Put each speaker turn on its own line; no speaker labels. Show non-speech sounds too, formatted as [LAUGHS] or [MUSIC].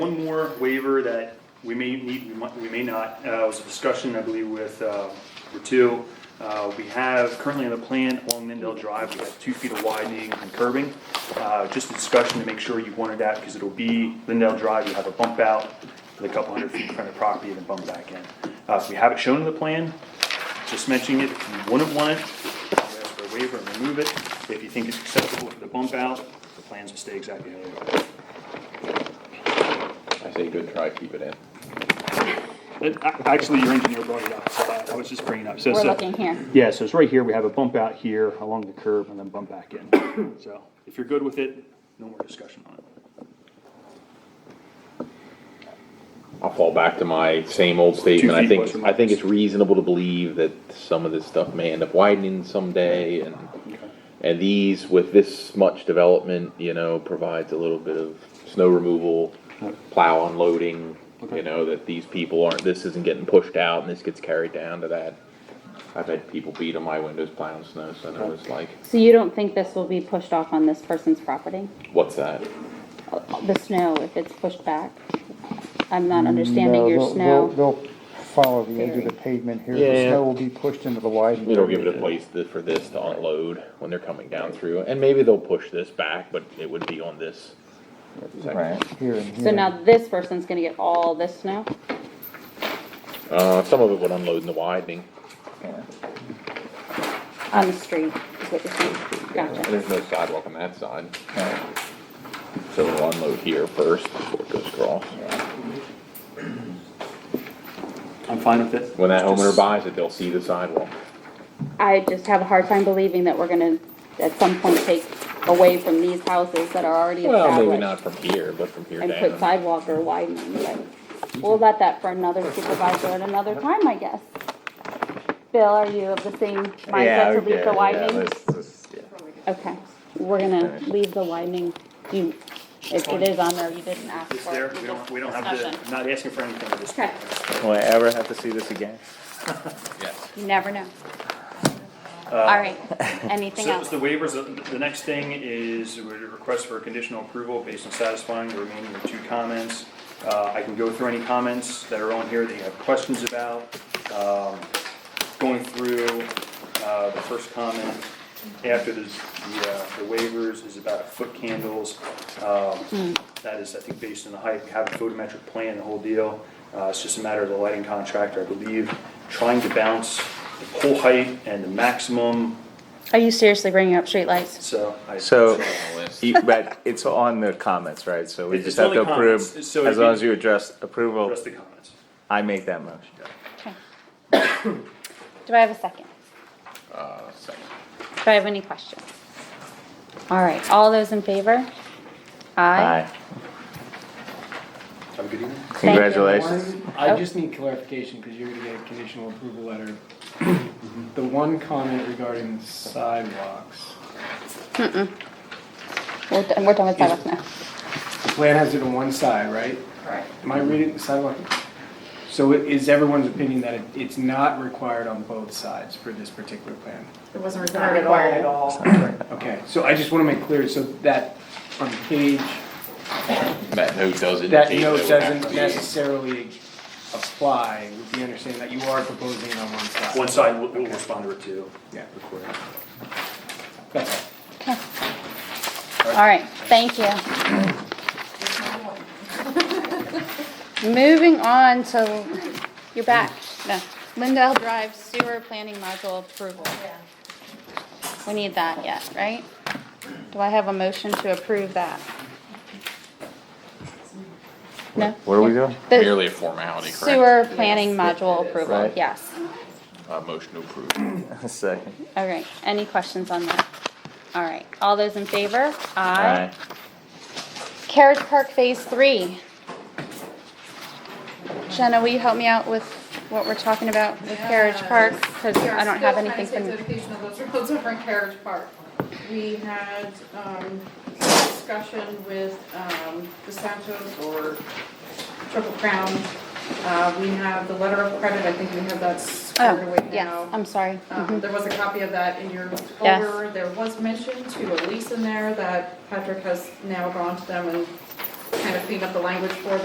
one more waiver that we may need, we might, we may not, uh, was a discussion, I believe, with, uh, Ratu. Uh, we have currently in the plan along Mendel Drive, we have two feet of widening and curbing. Uh, just a discussion to make sure you wanted that, because it'll be Lindell Drive, you have a bump out with a couple hundred feet in front of property and then bump back in. Uh, so we have it shown in the plan, just mentioning it, if you wouldn't want it, you ask for a waiver and remove it. If you think it's acceptable for the bump out, the plans will stay exactly how they are.
I say good try, keep it in.
It- a- Actually, your engineer brought it up, so I- I was just bringing it up. So-
We're
so-
looking here.
Yeah, so it's right here, we have a bump out here along the curb and then bump back in. [COUGHS] So if you're good with it, no more discussion on it.
I'll fall back to my same old statement. I
feet
think,
plus or
I think it's reasonable to believe that some of this stuff may end up widening someday and, and these, with this much development, you know, provides a little bit of snow removal, plow unloading,
Okay.
you know, that these people aren't, this isn't getting pushed out and this gets carried down to that. I've had people beat on my windows plowing snow, so I was like,
So you don't think this will be pushed off on this person's property?
what's that?
The snow, if it's pushed back? I'm not understanding
No,
your
they'll- they'll-
snow.
They'll follow the edge of the pavement here, the
Yeah.
snow will be pushed into the widening.
It'll give it a place th- for this to unload when they're coming down through, and maybe they'll push this back, but it would be on this. section.
Right, here and here.
So now this person's gonna get all this snow?
Uh, some of it would unload in the widening,
Yeah.
On the street, is what you're saying? Gotcha.
there's no sidewalk on that side. So it'll unload here first before it goes across.
I'm fine with it.
When that
It's
homeowner
just-
buys it, they'll see the sidewalk.
I just have a hard time believing that we're gonna, at some point, take away from these houses that are already
Well, maybe not
established
from here, but from here
and put
down.
sidewalk or widening, but we'll let that for another supervisor at another time, I guess. Bill, are you of the same mindset to leave the widening? Okay, we're gonna leave the widening, you, it, it is on there, you didn't ask
It's
for
there,
it.
we don't, we don't have to, I'm
Discussion.
not asking for anything at this
Okay,
point.
Will I ever have to see this again?
Yes.
you never know. Alright, anything
Uh, So
else?
the waivers, uh, the- the next thing is a request for conditional approval based on satisfying the remaining two comments. Uh, I can go through any comments that are on here that you have questions about. Um, Going through uh, the first comment after the the, uh, the waivers is about foot candles.
Hmm.
Um, That is, I think, based on the height, we have a photometric plan, the whole deal. Uh, It's just a matter of the lighting contractor, I believe, trying to bounce the pole height and the maximum
Are you seriously bringing up streetlights?
so I.
So, you- but it's on the comments, right? So we
It's- it's
just have
on
to
the
approve,
comments,
as
so it'd
long
be-
as you address approval,
Just the comments.
I make that motion.
Okay. [COUGHS] Do I have a second? Do I have any questions? Alright, all those in favor? Aye.
Aye.
Have a good evening.
you.
Congratulations.
I just need clarification, because you're gonna get a conditional approval letter. The one comment regarding sidewalks,
We're, done- we're done with sidewalks now.
the plan has it on one side, right? Right. Am I reading the sidewalk? So it is everyone's opinion that it, it's not required on both sides for this particular plan?
It wasn't required at all.
Okay, so I just wanna make clear, so that on page,
That note does indicate.
that
it
note
would have to
doesn't
be-
necessarily apply, with the understanding that you are proposing it on one side.
One side will, will respond to it too.
Yeah. That's all.
Alright, thank you. Moving on to, you're back, no, Lindell Drive Sewer Planning Module Approval. We need that yet, right? Do I have a motion to approve that? No?
What are we doing? [LAUGHS]
Merely
The
a formality, correct?
sewer planning module approval,
Right.
yes.
Uh, motion to approve.
Second.
All right, any questions on that? All right, all those in favor?
Aye.
Aye. Carriage Park Phase Three. Jenna, will you help me out with what we're talking about with Carriage Park? Because
We are
I don't have
still
anything
trying to
from,
take dedication of those [LAUGHS] roads over in Carriage Park. We had, um, discussion with, um, the Santos or Triple Crown. Uh, we have the letter of credit, I think we have that squared
oh,
away
yes,
now.
I'm sorry.
Um,
Mhm.
there was a copy of that in your
Yes.
folder, there was mention to a lease in there that Patrick has now gone to them and kind of cleaned up the language for